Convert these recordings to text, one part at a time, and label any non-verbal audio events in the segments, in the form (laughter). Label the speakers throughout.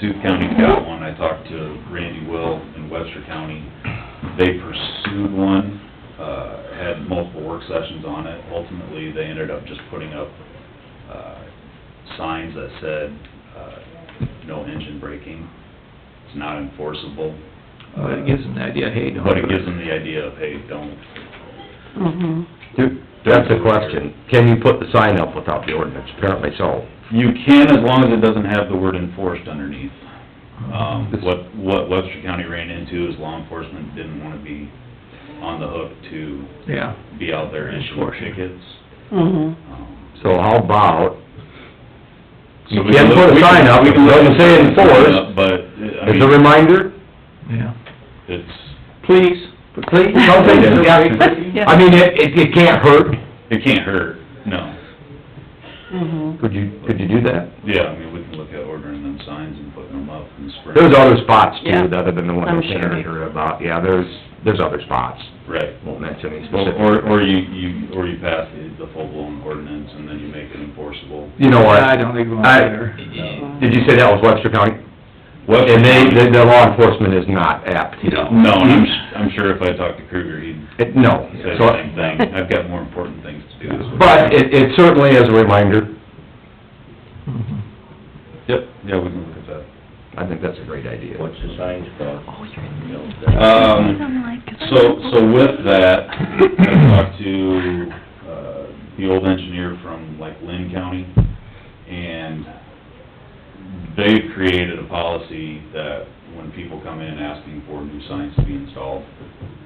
Speaker 1: Sioux County's got one, I talked to Randy Will in Webster County. They pursued one, uh, had multiple work sessions on it. Ultimately, they ended up just putting up, uh, signs that said, uh, no engine braking. It's not enforceable. Uh,
Speaker 2: But it gives them the idea, hey, don't.
Speaker 1: But it gives them the idea of, hey, don't,
Speaker 3: Mhm.
Speaker 4: Do- That's the question. Can you put the sign up without the ordinance? Apparently so.
Speaker 1: You can, as long as it doesn't have the word enforced underneath. Um, what, what Webster County ran into is law enforcement didn't wanna be on the hook to
Speaker 2: Yeah,
Speaker 1: be out there issuing
Speaker 2: Enforcing.
Speaker 1: tickets.
Speaker 3: Mhm.
Speaker 1: Um,
Speaker 4: So how about,
Speaker 1: so
Speaker 4: You
Speaker 1: we
Speaker 4: can't
Speaker 1: can
Speaker 4: put a
Speaker 1: look- we can-
Speaker 4: sign up,
Speaker 1: we can
Speaker 4: it doesn't
Speaker 1: look
Speaker 4: say
Speaker 1: at the sign
Speaker 4: enforced.
Speaker 1: up, But, I
Speaker 4: as a
Speaker 1: mean,
Speaker 4: reminder,
Speaker 2: yeah.
Speaker 1: it's,
Speaker 4: please,
Speaker 2: (laughs)
Speaker 4: please, something, yeah. I mean, it, it, it can't hurt.
Speaker 1: it can't hurt, no.
Speaker 3: Mhm.
Speaker 4: Could you, could you do that?
Speaker 1: Yeah, I mean, we can look at ordering them signs and putting them up in the spring.
Speaker 4: There's other spots
Speaker 3: Yeah.
Speaker 4: too, other than the one
Speaker 3: I'm
Speaker 4: that Sandy
Speaker 3: sure.
Speaker 4: heard about. Yeah, there's, there's other spots.
Speaker 1: Right.
Speaker 4: Won't mention any
Speaker 1: Well,
Speaker 4: specific.
Speaker 1: Or, or you, you, or you pass the the full-blown ordinance and then you make it enforceable.
Speaker 4: You know what?
Speaker 2: I don't think we want
Speaker 4: I-
Speaker 2: there.
Speaker 4: Did you say that was Webster County?
Speaker 1: What-
Speaker 4: And they, the, the law enforcement is not apt, you know?
Speaker 1: No, and I'm, s- I'm sure if I talked to Kruger, he'd
Speaker 4: It- No.
Speaker 1: say
Speaker 4: So-
Speaker 1: the same thing. I've got more important things to do.
Speaker 4: But it, it certainly is a reminder. Mm-hmm.
Speaker 2: Mhm.
Speaker 1: Yep, yeah, we can look at that.
Speaker 4: I think that's a great idea.
Speaker 5: What's the signs cost? You know,
Speaker 1: Um, so, so with that, I talked to, uh, the old engineer from like Lynn County, and they've created a policy that when people come in asking for new signs to be installed,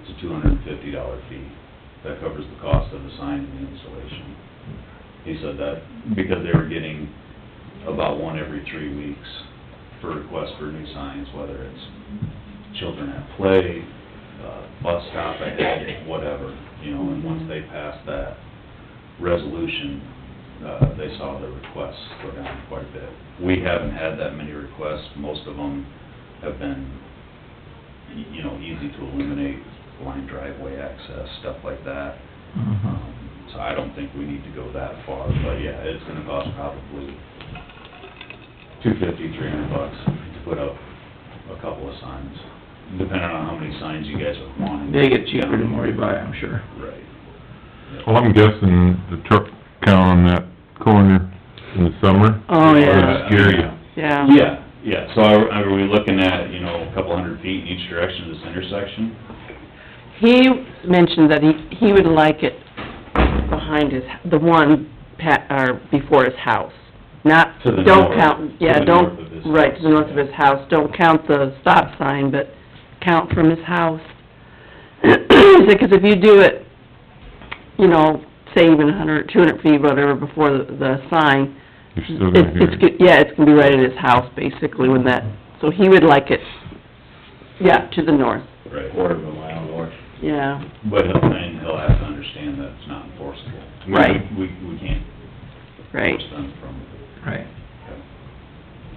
Speaker 1: it's a two hundred and fifty dollar fee. That covers the cost of the sign and the installation. He said that because they were getting about one every three weeks for requests for new signs, whether it's children at play, uh, bus stop ahead, whatever, you know, and once they passed that resolution, uh, they saw the requests go down quite a bit. We haven't had that many requests, most of them have been, y- you know, easy to eliminate, blind driveway access, stuff like that.
Speaker 2: Mhm.
Speaker 1: Um, So I don't think we need to go that far, but yeah, it's gonna cost probably two fifty, three hundred bucks to put up a couple of signs, depending on how many signs you guys are wanting.
Speaker 2: They get cheaper the more you buy, I'm sure.
Speaker 1: Right.
Speaker 6: Well, I'm guessing the truck count on that corner in the summer.
Speaker 3: Oh, yeah,
Speaker 6: That'd scare you.
Speaker 3: yeah.
Speaker 1: Yeah, yeah, so are, are we looking at, you know, a couple hundred feet in each direction of this intersection?
Speaker 3: He mentioned that he, he would like it behind his, the one pat, or before his house. Not,
Speaker 1: To the
Speaker 3: don't
Speaker 1: north.
Speaker 3: count,
Speaker 1: To
Speaker 3: yeah,
Speaker 1: the
Speaker 3: don't,
Speaker 1: north of his
Speaker 3: right, to the
Speaker 1: house,
Speaker 3: north of
Speaker 1: yeah.
Speaker 3: his house, don't count the stop sign, but count from his house. (clears throat) Because if you do it, you know, say even a hundred, two hundred feet, whatever, before the, the sign,
Speaker 6: You're still
Speaker 3: It's,
Speaker 6: gonna hear
Speaker 3: it's,
Speaker 6: it.
Speaker 3: good- yeah, it's gonna be right at his house, basically, when that, so he would like it, yeah, to the north,
Speaker 1: Right.
Speaker 5: Quarter of a mile north.
Speaker 3: yeah.
Speaker 1: But he'll, and he'll have to understand that it's not enforceable. We-
Speaker 3: Right.
Speaker 1: We, we can't
Speaker 3: Right.
Speaker 1: force them from,
Speaker 2: Right.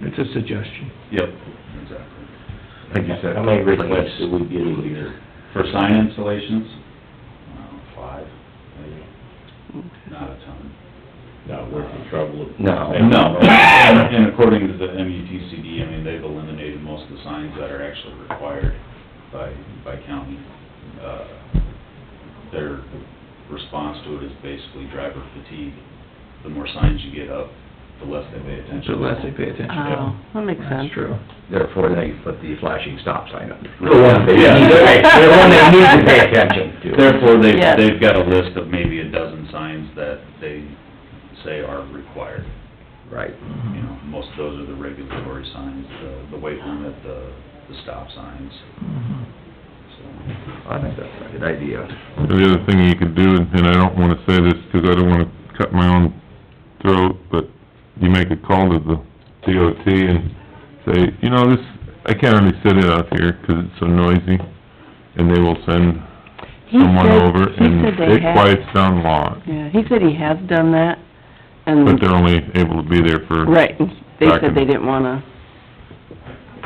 Speaker 2: It's a suggestion.
Speaker 1: yep, exactly.
Speaker 4: Like you said.
Speaker 5: How many requests do we get a year?
Speaker 1: For sign installations, um, five, maybe, not a ton.
Speaker 5: Not worth the trouble of...
Speaker 4: No.
Speaker 1: And no, and according to the MUTCD, I mean, they've eliminated most of the signs that are actually required by, by county. Uh, Their response to it is basically driver fatigue. The more signs you get up, the less they pay
Speaker 2: So
Speaker 1: attention.
Speaker 2: less they pay attention.
Speaker 3: Oh, that makes sense.
Speaker 2: That's true.
Speaker 4: Therefore, they put the flashing stop sign
Speaker 1: (laughs)
Speaker 4: up. The
Speaker 1: one they-
Speaker 4: Yeah, the one they need to pay attention to.
Speaker 1: Therefore, they've,
Speaker 3: Yes.
Speaker 1: they've got a list of maybe a dozen signs that they say are required.
Speaker 4: Right.
Speaker 1: You
Speaker 4: Mm-hmm.
Speaker 1: know, most of those are the regulatory signs, the, the weight limit, the, the stop signs,
Speaker 2: Mhm.
Speaker 1: so.
Speaker 4: I think that's a good idea.
Speaker 6: The other thing you could do, and I don't wanna say this, 'cause I don't wanna cut my own throat, but you make a call to the DOT and say, you know, this, I can't really sit it out here 'cause it's so noisy, and they will send
Speaker 3: He
Speaker 6: someone
Speaker 3: said-
Speaker 6: over,
Speaker 3: he
Speaker 6: and
Speaker 3: said they
Speaker 6: it
Speaker 3: had-
Speaker 6: quiets down a lot,
Speaker 3: Yeah, he said he has done that, and,
Speaker 6: but they're only able to be there for...
Speaker 3: right, they said they
Speaker 6: Document.
Speaker 3: didn't wanna,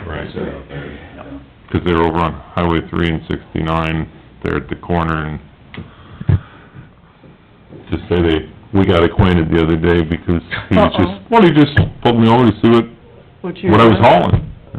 Speaker 6: Right.
Speaker 1: So, yeah.
Speaker 6: 'Cause they're over on Highway three and sixty-nine, they're at the corner and just say they, we got acquainted the other day because he was
Speaker 3: Uh-oh.
Speaker 6: just, well, he just pulled me over to see what,
Speaker 3: what you...
Speaker 6: what I was hauling.